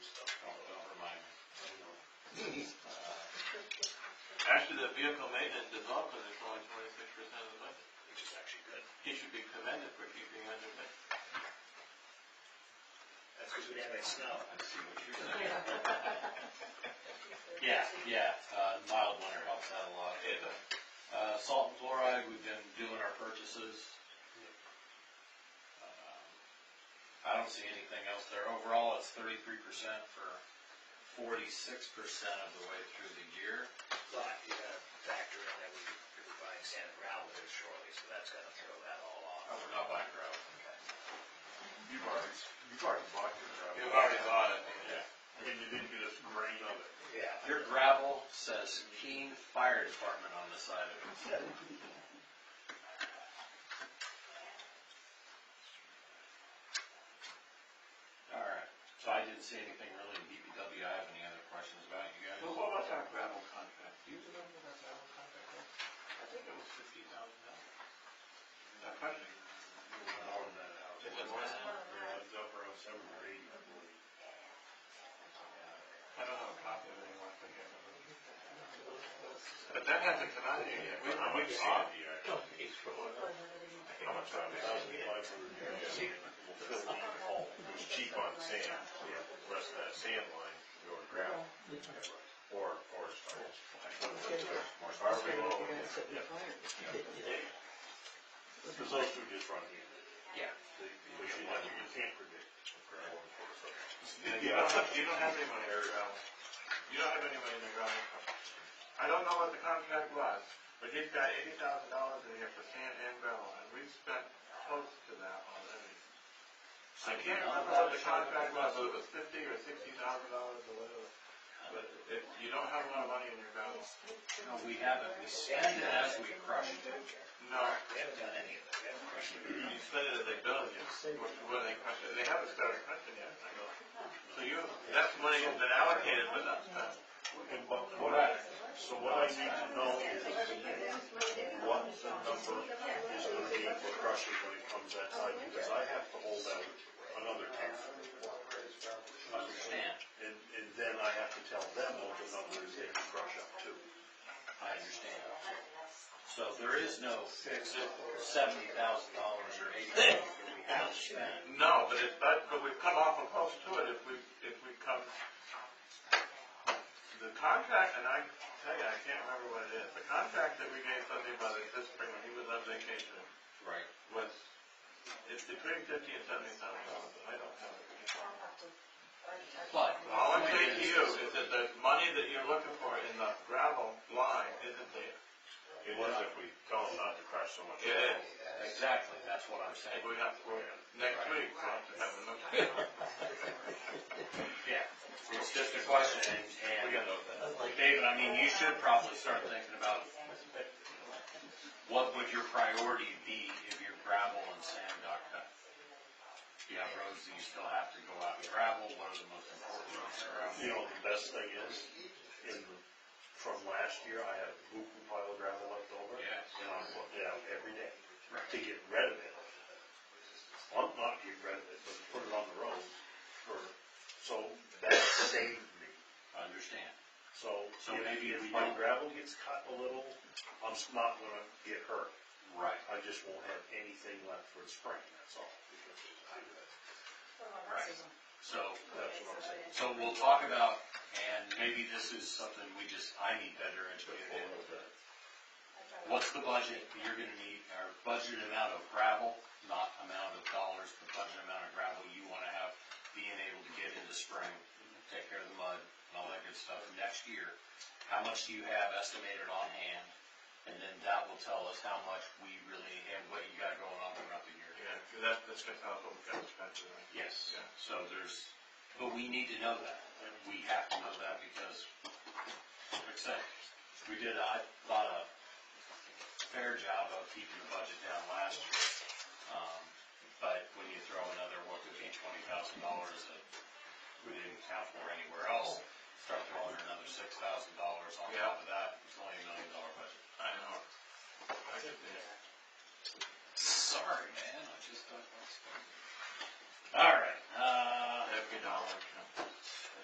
Actually, the vehicle maintenance development is only twenty-six percent of the budget. which is actually good. He should be commended for keeping under budget. That's because we didn't have any snow. Yeah, yeah, uh, mild winter helps out a lot. It does. Uh, salt and chloride, we've been doing our purchases. Um, I don't see anything else there. Overall, it's thirty-three percent for forty-six percent of the way through the year. But you gotta factor in that we could be buying sand and gravel here shortly, so that's gonna throw that all off. Oh, we're not buying gravel. You've already, you've already bought your gravel. You've already bought it. And you didn't get a grain of it. Yeah. Your gravel says Keene Fire Department on the side of it. All right, so I didn't see anything really in DPW. I have any other questions about it, you guys? Well, what was our gravel contract? Do you remember what our gravel contract was? I think it was fifty thousand dollars. That project. It was less than- It's up around seven or eight, I believe. I don't have a copy of it anymore, I think I remember. But that hasn't come out yet. We- we've seen it. Yeah. How much time is it? Five hundred, yeah. It was cheap on sand, yeah, the rest of that sand line, you were gravel. Or, or stone. Or however you want it. Yeah. Cause those two just run here. Yeah. They- But you, you can't predict gravel. Yeah, You don't, you don't have any money in the gravel. You don't have any money in the gravel. I don't know what the contract was, but he's got eighty thousand dollars in here for sand and gravel, and we've spent close to that already. I can't remember what the contract was, whether it was fifty or sixty thousand dollars or whatever, but it, you don't have a lot of money in your gravel. No, we haven't. We spend it as we crush it. No, We haven't done any of it, we haven't crushed it. you spend it as they build it, which is when they crush it, they haven't started crushing yet, I go. So you, that's money that's been allocated, but not spent. And what, what I, so what I need to know is what the number is gonna be for crushing when it comes that time, because I have to hold out another ten. Understand? And, and then I have to tell them what the number is they can crush up to. I understand. So there is no fixed seventy thousand dollars or eighty thousand that we have spent. No, but if that, but we've come awful close to it if we, if we come. The contract, and I tell you, I can't remember what it is, the contract that we gave Sunday Brothers this spring when he was on vacation Right. was, it's between fifty and seventy thousand dollars, I don't have it. But. All I'm saying to you is that the money that you're looking for in the gravel line isn't there. It was if we tell them not to crush so much. It is, Exactly, that's what I'm saying. and we have, we're, next week, we'll have to have a look. Yeah, it's just a question, and, We and, gotta look at that. David, I mean, you should probably start thinking about what would your priority be if your gravel and sand got cut? You have roads that you still have to go out and gravel, what are the most important roads around? You know, the best thing is, in, from last year, I had a hoop pile of gravel left over. Yes. And I'm putting it out every day Right. to get rid of it. Well, not get rid of it, but put it on the road for, so that saved me. Understand. So, So if- maybe if we my don't- gravel gets cut a little, I'm s- not gonna get hurt. Right. I just won't have anything left for the spring, that's all. Right. So, That's what I'm saying. so we'll talk about, and maybe this is something we just, I need better educated in. What's the budget that you're gonna need, or budget amount of gravel, not amount of dollars, but budget amount of gravel you wanna have being able to get into spring, take care of the mud and all that good stuff next year. How much do you have estimated on hand? And then that will tell us how much we really, and what you got going on throughout the year. Yeah, 'cause that, that's gonna tell us what we got spent, right? Yes, Yeah. so there's, but we need to know that, and we have to know that because, like I said, we did, I thought a fair job of keeping the budget down last year. Um, but when you throw another, what could be twenty thousand dollars that we didn't account for anywhere else, start throwing another six thousand dollars on Yeah. top of that, it's only a million dollar budget. I know. I get that. Sorry, man, I just don't. All right, uh. Every dollar counts.